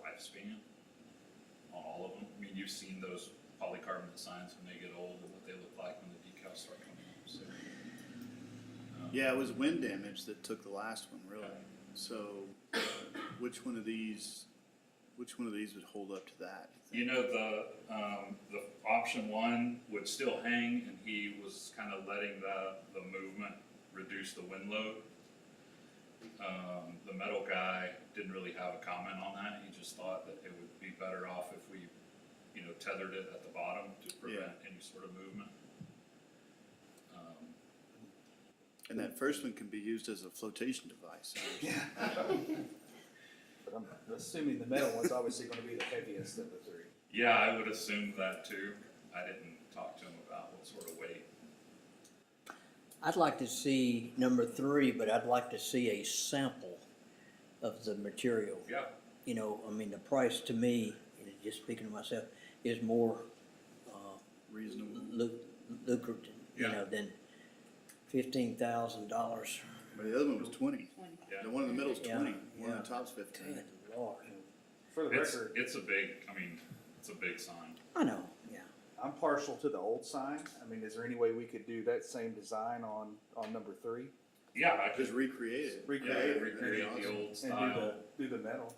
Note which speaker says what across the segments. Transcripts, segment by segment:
Speaker 1: lifespan on all of them. I mean, you've seen those polycarbonate signs when they get old and what they look like when the decals start coming off, so. um,
Speaker 2: Yeah, it was wind damage that took the last one, really.
Speaker 1: Okay.
Speaker 2: So, uh, which one of these, which one of these would hold up to that?
Speaker 1: You know, the, um, the option one would still hang and he was kind of letting the, the movement reduce the wind load. Um, the metal guy didn't really have a comment on that. He just thought that it would be better off if we, you know, tethered it at the bottom to prevent any sort of movement. Um,
Speaker 2: And that first one can be used as a flotation device.
Speaker 3: But I'm assuming the metal one's obviously gonna be the heaviest of the three.
Speaker 1: Yeah, I would assume that too. I didn't talk to him about what sort of weight.
Speaker 4: I'd like to see number three, but I'd like to see a sample of the material.
Speaker 1: Yeah,
Speaker 4: You know, I mean, the price to me, just speaking to myself, is more
Speaker 2: Reasonable.
Speaker 4: lu- lucrative, you
Speaker 1: Yeah.
Speaker 4: know, than fifteen thousand dollars.
Speaker 2: But the other one was twenty.
Speaker 1: yeah.
Speaker 2: The one in the middle's
Speaker 4: Yeah,
Speaker 2: twenty. One on
Speaker 4: yeah.
Speaker 2: the top's fifteen.
Speaker 4: Good lord.
Speaker 3: For the
Speaker 1: It's,
Speaker 3: record,
Speaker 1: it's a big, I mean, it's a big sign.
Speaker 4: I know, yeah.
Speaker 3: I'm partial to the old sign. I mean, is there any way we could do that same design on, on number three?
Speaker 1: Yeah, I
Speaker 2: Just
Speaker 1: could,
Speaker 2: recreate it.
Speaker 1: yeah,
Speaker 3: Recreate it.
Speaker 1: recreate the
Speaker 2: Awesome.
Speaker 1: old
Speaker 3: And do the,
Speaker 1: style.
Speaker 3: do the metal?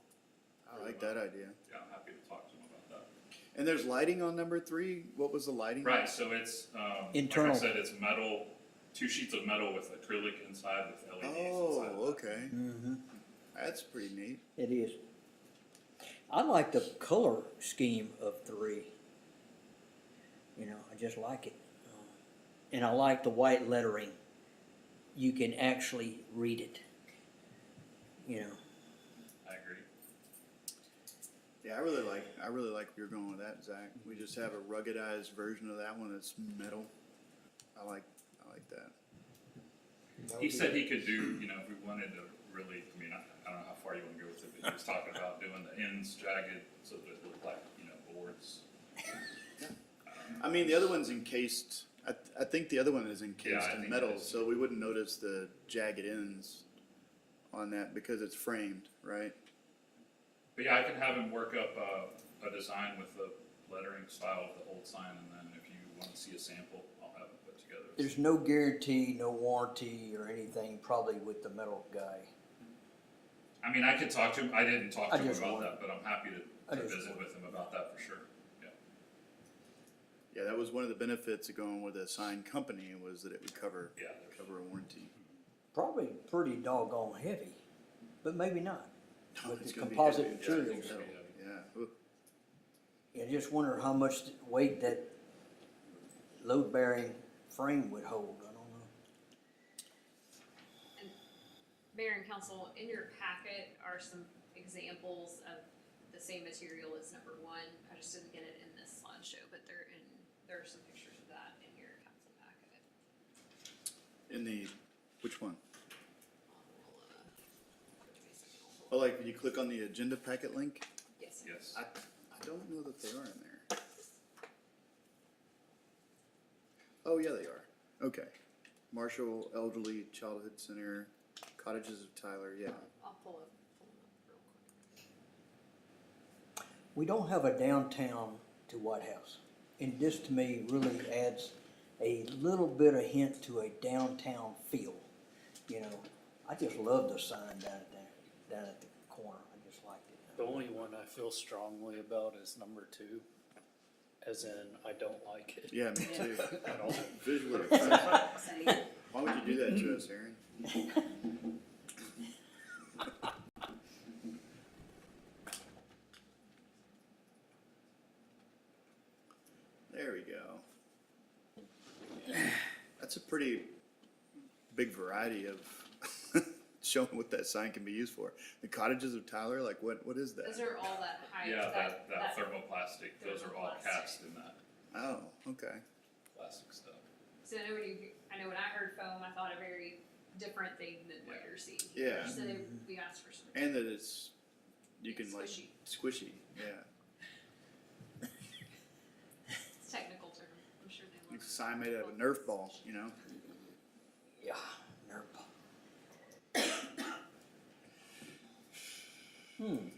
Speaker 2: I like that idea.
Speaker 1: Yeah, I'm happy to talk to him about
Speaker 2: And there's lighting on number three. What was the lighting?
Speaker 1: that. Right, so it's, um, like I
Speaker 4: Internal.
Speaker 1: said, it's metal, two sheets of metal with acrylic inside with LEDs inside.
Speaker 2: Oh, okay.
Speaker 4: Mm-hmm.
Speaker 2: That's pretty neat.
Speaker 4: It is. I like the color scheme of three. You know, I just like it. Um, And I like the white lettering. You can actually read it. You know,
Speaker 1: I agree.
Speaker 2: Yeah, I really like, I really like where you're going with that, Zach. We just have a ruggedized version of that one that's metal. I like, I like that.
Speaker 3: That
Speaker 1: He
Speaker 3: would be-
Speaker 1: said he could do, you know, if we wanted to really, I mean, I, I don't know how far you wanna go with it, but he was talking about doing the ends jagged so that it looked like, you know, boards.
Speaker 2: I mean, the other one's encased, I, th- I think the other one is encased
Speaker 1: I
Speaker 2: in
Speaker 1: think it
Speaker 2: metal,
Speaker 1: is.
Speaker 2: so we wouldn't notice the jagged ends on that because it's framed, right?
Speaker 1: But yeah, I can have him work up uh, a, a design with the lettering style of the old sign, and then if you wanna see a sample, I'll have it put together.
Speaker 4: there's no guarantee, no warranty or anything probably with the metal guy.
Speaker 1: I mean, I could talk to him, I didn't talk to
Speaker 4: I
Speaker 1: him
Speaker 4: just
Speaker 1: about
Speaker 4: want-
Speaker 1: that, but I'm happy
Speaker 4: I
Speaker 1: to, to
Speaker 4: just
Speaker 1: visit
Speaker 4: want-
Speaker 1: with him about that for sure, yeah.
Speaker 2: Yeah, that was one of the benefits of going with a sign company was that it would cover,
Speaker 1: Yeah.
Speaker 2: cover a warranty.
Speaker 4: Probably pretty doggone heavy, but maybe not. With
Speaker 2: It's
Speaker 4: the
Speaker 2: gonna be
Speaker 4: composite
Speaker 1: Yeah,
Speaker 2: heavy.
Speaker 1: I think
Speaker 4: materials.
Speaker 1: so, yeah.
Speaker 2: Yeah, Ooh,
Speaker 4: I just wonder how much weight that load bearing frame would hold, I don't know.
Speaker 5: Mayor and council, in your packet are some examples of the same material as number one. I just didn't get it in this slideshow, but they're in, there are some pictures of that in your council packet.
Speaker 2: in the, which one?
Speaker 5: I'll, uh, give me a second, I'll
Speaker 2: Oh,
Speaker 5: pull it.
Speaker 2: like when you click on the agenda packet link?
Speaker 5: Yes.
Speaker 1: Yes,
Speaker 2: I, I don't know that they are in there. Oh, yeah, they are. Okay. Marshall Elderly Childhood Center, Cottages of Tyler, yeah.
Speaker 5: I'll pull it, pull it up real quick.
Speaker 4: We don't have a downtown to White House. And this to me really adds a little bit of hint to a downtown feel. You know, I just love the sign down at there, down at the corner. I just liked
Speaker 6: The
Speaker 4: it.
Speaker 6: only one I feel strongly about is number two, as in I don't like it.
Speaker 2: Yeah, me too.
Speaker 6: At all.
Speaker 2: Visual effects.
Speaker 5: Same.
Speaker 2: Why would you do that to us, Aaron? There we go. That's a pretty big variety of showing what that sign can be used for. The cottages of Tyler, like what, what is
Speaker 5: Those
Speaker 2: that?
Speaker 5: are all that high,
Speaker 1: yeah, that,
Speaker 5: that,
Speaker 1: that thermoplastic, those are all
Speaker 5: thermoplastic.
Speaker 1: cast in that
Speaker 2: Oh, okay.
Speaker 1: plastic stuff.
Speaker 5: So I know when you, I know when I heard foam, I thought a very different thing than what you're seeing. here.
Speaker 2: Yeah.
Speaker 5: So we asked for some.
Speaker 2: And that it's, you can like,
Speaker 5: Squishy.
Speaker 2: squishy, yeah.
Speaker 5: It's a technical term, I'm sure they
Speaker 2: Like
Speaker 5: will.
Speaker 2: a sign made out of a Nerf ball, you know?
Speaker 4: Yeah, NERPA. Hmm,